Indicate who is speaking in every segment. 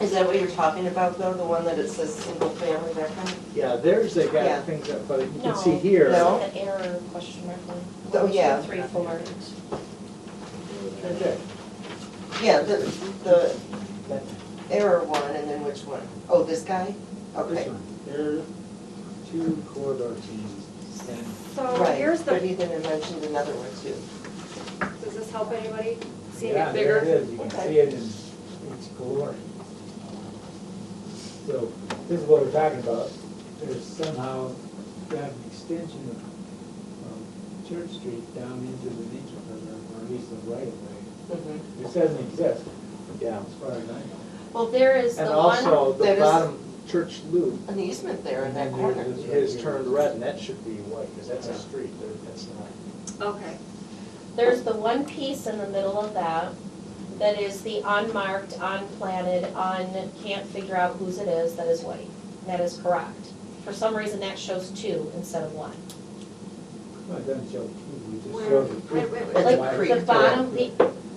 Speaker 1: Is that what you're talking about though, the one that it says single family, that kind of?
Speaker 2: Yeah, there's, they
Speaker 1: Yeah.
Speaker 2: got things up, but you
Speaker 3: No,
Speaker 2: can see here.
Speaker 1: No.
Speaker 3: An error question mark one.
Speaker 1: Oh,
Speaker 3: One, two,
Speaker 1: yeah.
Speaker 3: Three, four.
Speaker 2: Right there.
Speaker 1: Yeah, the, the error one and then which one? Oh, this guy?
Speaker 2: This
Speaker 1: Okay.
Speaker 2: one, there, two corridor teams, same.
Speaker 4: So
Speaker 1: Right,
Speaker 4: here's
Speaker 1: but
Speaker 4: the,
Speaker 1: he then mentioned another one too.
Speaker 4: does this help anybody seeing
Speaker 2: Yeah,
Speaker 4: it
Speaker 2: there
Speaker 4: bigger?
Speaker 2: it is, you can
Speaker 1: Okay.
Speaker 2: see it in its glory. So, this is what we're talking about, there's somehow got an extension of, of Church Street down into the nature preserve, or at least the right of way.
Speaker 1: Mhm.
Speaker 2: It doesn't exist. Yeah. As far as I know.
Speaker 3: Well, there is the
Speaker 2: And
Speaker 3: one,
Speaker 5: also
Speaker 1: that
Speaker 5: the
Speaker 1: is-
Speaker 5: bottom church loop
Speaker 1: An easement there in
Speaker 2: And
Speaker 1: that
Speaker 2: then
Speaker 1: corner.
Speaker 2: there's this right
Speaker 5: is
Speaker 2: here.
Speaker 5: turned red, and that should be white, because that's a street, there- that's not.
Speaker 4: Okay.
Speaker 3: there's the one piece in the middle of that that is the unmarked, unplanted, un, can't figure out whose it is, that is white. That is correct. For some reason, that shows two instead of one.
Speaker 2: Well, it doesn't show, two, it just
Speaker 4: Where-
Speaker 2: shows the creek.
Speaker 4: wait, wait, wait.
Speaker 1: That's
Speaker 3: Like
Speaker 1: why-
Speaker 3: the bottom, the,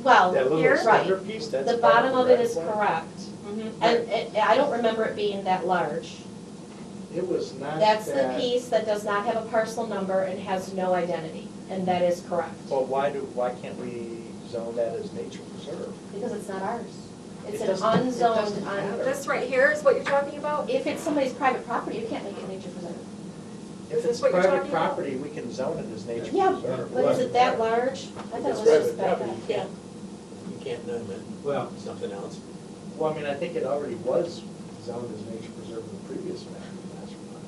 Speaker 3: well,
Speaker 5: That
Speaker 3: here,
Speaker 5: little
Speaker 3: right.
Speaker 5: center piece, that's.
Speaker 3: The
Speaker 5: part
Speaker 3: bottom of it
Speaker 5: red
Speaker 3: is
Speaker 5: one.
Speaker 3: correct.
Speaker 4: Mhm.
Speaker 1: Mm-hmm.
Speaker 3: And it, I don't remember it being that large.
Speaker 5: It was not
Speaker 3: That's the
Speaker 5: that-
Speaker 3: piece that does not have a parcel number and has no identity, and that is correct,
Speaker 5: Well, why do, why can't we zone that as nature preserve?
Speaker 3: because it's not ours. It's
Speaker 5: It
Speaker 3: an
Speaker 5: doesn't- it
Speaker 3: unzoned,
Speaker 5: doesn't
Speaker 3: un,
Speaker 5: matter.
Speaker 4: This right here is what you're talking about?
Speaker 3: if it's somebody's private property, you can't make it nature preserve.
Speaker 4: Is
Speaker 5: If
Speaker 4: this
Speaker 5: it's
Speaker 4: what you're
Speaker 5: private
Speaker 4: talking about?
Speaker 5: property, we can zone it as nature
Speaker 3: Yeah,
Speaker 5: preserve.
Speaker 3: But is it that large? I thought it
Speaker 6: It's
Speaker 3: was just
Speaker 6: private
Speaker 3: that,
Speaker 6: property, you
Speaker 3: yeah.
Speaker 6: can't- You can't name it
Speaker 2: Well,
Speaker 6: something else.
Speaker 5: Well, I mean, I think it already was zoned as nature preserve in the previous map. master plan.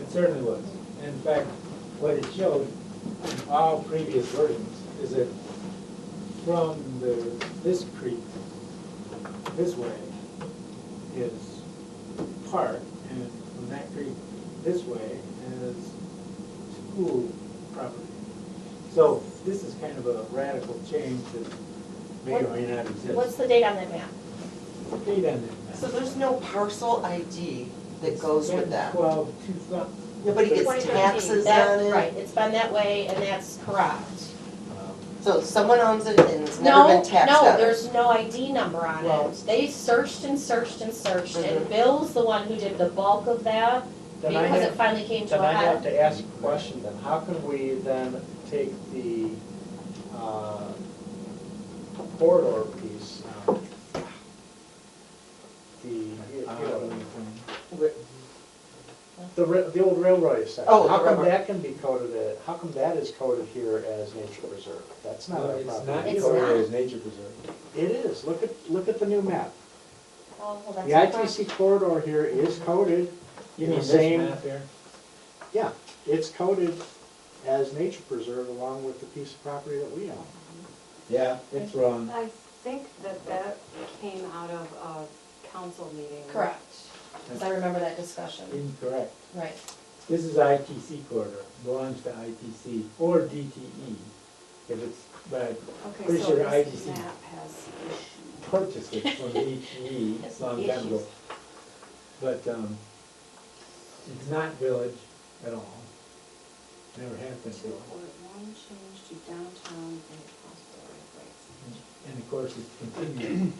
Speaker 2: it certainly was. And In fact, what it showed in all previous versions is that from the, this creek, this way is park, and from that creek this way is school property. So this is kind of a radical change that may or may not exist.
Speaker 3: What's the date on that map?
Speaker 2: Date on that.
Speaker 1: So there's no parcel ID that goes with that.
Speaker 2: Twelve, two, thou-
Speaker 1: Nobody gets
Speaker 4: 2013,
Speaker 1: taxes on
Speaker 3: That, right,
Speaker 1: it.
Speaker 3: it's been that way, and that's correct.
Speaker 1: So someone owns it and it's never
Speaker 3: No,
Speaker 1: been taxed on it.
Speaker 3: no, there's no ID number on
Speaker 1: Well-
Speaker 3: it. They searched and searched and searched, and
Speaker 1: Mhm.
Speaker 3: Bill's the one who did the bulk of that,
Speaker 5: Then I
Speaker 3: because
Speaker 5: have-
Speaker 3: it finally came to
Speaker 5: Then
Speaker 3: a
Speaker 5: I
Speaker 3: head.
Speaker 5: have to ask a question then, how can we then take the uh, corridor piece, um, the, you know, ri- the, ri- the old railroad section?
Speaker 1: Oh, the
Speaker 5: How come
Speaker 1: railroad.
Speaker 5: that can be coded, at- how come that is coded here as nature preserve? That's not
Speaker 2: Well,
Speaker 5: our
Speaker 2: it's not
Speaker 5: property.
Speaker 3: It's
Speaker 2: recorded
Speaker 3: not.
Speaker 2: as nature preserve.
Speaker 5: It is, look at, look at the new map.
Speaker 3: Oh, well,
Speaker 5: The
Speaker 3: that's correct.
Speaker 5: ITC corridor here is coded in the same, yeah, it's coded as nature preserve along with the piece of property that we own.
Speaker 2: Yeah, it's wrong.
Speaker 7: I think that that came out of a council meeting.
Speaker 3: Correct, because I remember that discussion,
Speaker 2: Incorrect.
Speaker 3: right.
Speaker 2: This is ITC corridor, belongs to ITC or DTE. If it's, but
Speaker 7: Okay,
Speaker 2: Pretty
Speaker 7: so
Speaker 2: sure
Speaker 7: this
Speaker 2: IDC.
Speaker 7: map has issues.
Speaker 2: purchased it from DTE a long time ago. But, um, it's not village at all. Never has been
Speaker 7: Two
Speaker 2: village.
Speaker 7: or one change to downtown and across the right of ways.
Speaker 2: And of course, it's continued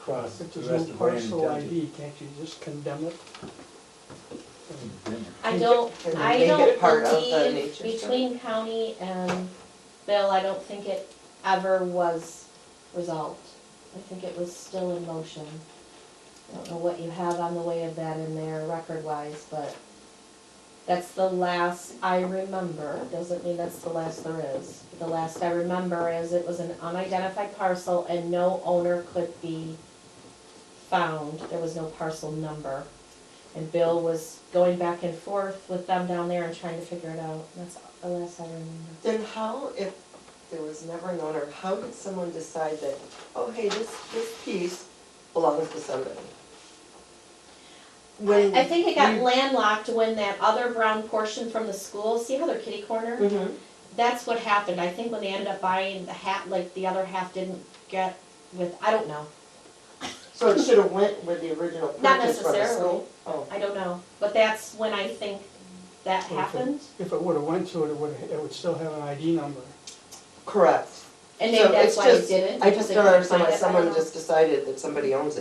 Speaker 2: across
Speaker 8: If
Speaker 2: the
Speaker 8: there's
Speaker 2: rest
Speaker 8: no
Speaker 2: of Brandon
Speaker 8: parcel
Speaker 2: Township. Oh,
Speaker 8: ID, can't you just condemn it?
Speaker 3: I don't,
Speaker 1: Can we
Speaker 3: I
Speaker 1: make it
Speaker 3: don't
Speaker 1: part of the
Speaker 3: believe,
Speaker 1: nature stuff?
Speaker 3: between county and Bill, I don't think it ever was resolved. I think it was still in motion. I don't know what you have on the way of that in there record-wise, but that's the last I remember. Doesn't mean that's the last there is. The last I remember is it was an unidentified parcel and no owner could be found. There was no parcel number. And Bill was going back and forth with them down there and trying to figure it out. That's the last I remember.
Speaker 1: Then how, if there was never an owner, how did someone decide that, oh, hey, this, this piece belongs to somebody? When-
Speaker 3: I think it got landlocked when that other brown portion from the school, see how their kitty corner?
Speaker 1: Mhm.
Speaker 3: That's what happened. I think when they ended up buying the hat, like the other half didn't get with, I don't know.
Speaker 1: So it should have went with the original
Speaker 3: Not
Speaker 1: purchase from the
Speaker 3: necessarily.
Speaker 1: school? Oh,
Speaker 3: I don't know. But that's when I think that
Speaker 8: Okay.
Speaker 3: happened.
Speaker 8: If it would've went to it, it would, it would still have an ID number.
Speaker 1: correct.
Speaker 3: And
Speaker 1: So
Speaker 3: maybe that's
Speaker 1: it's
Speaker 3: why they
Speaker 1: just-
Speaker 3: didn't.
Speaker 1: I
Speaker 3: because
Speaker 1: just
Speaker 3: they
Speaker 1: don't
Speaker 3: couldn't
Speaker 1: understand
Speaker 3: find
Speaker 1: why
Speaker 3: it. I don't
Speaker 1: someone
Speaker 3: know.
Speaker 1: just decided that somebody owns it.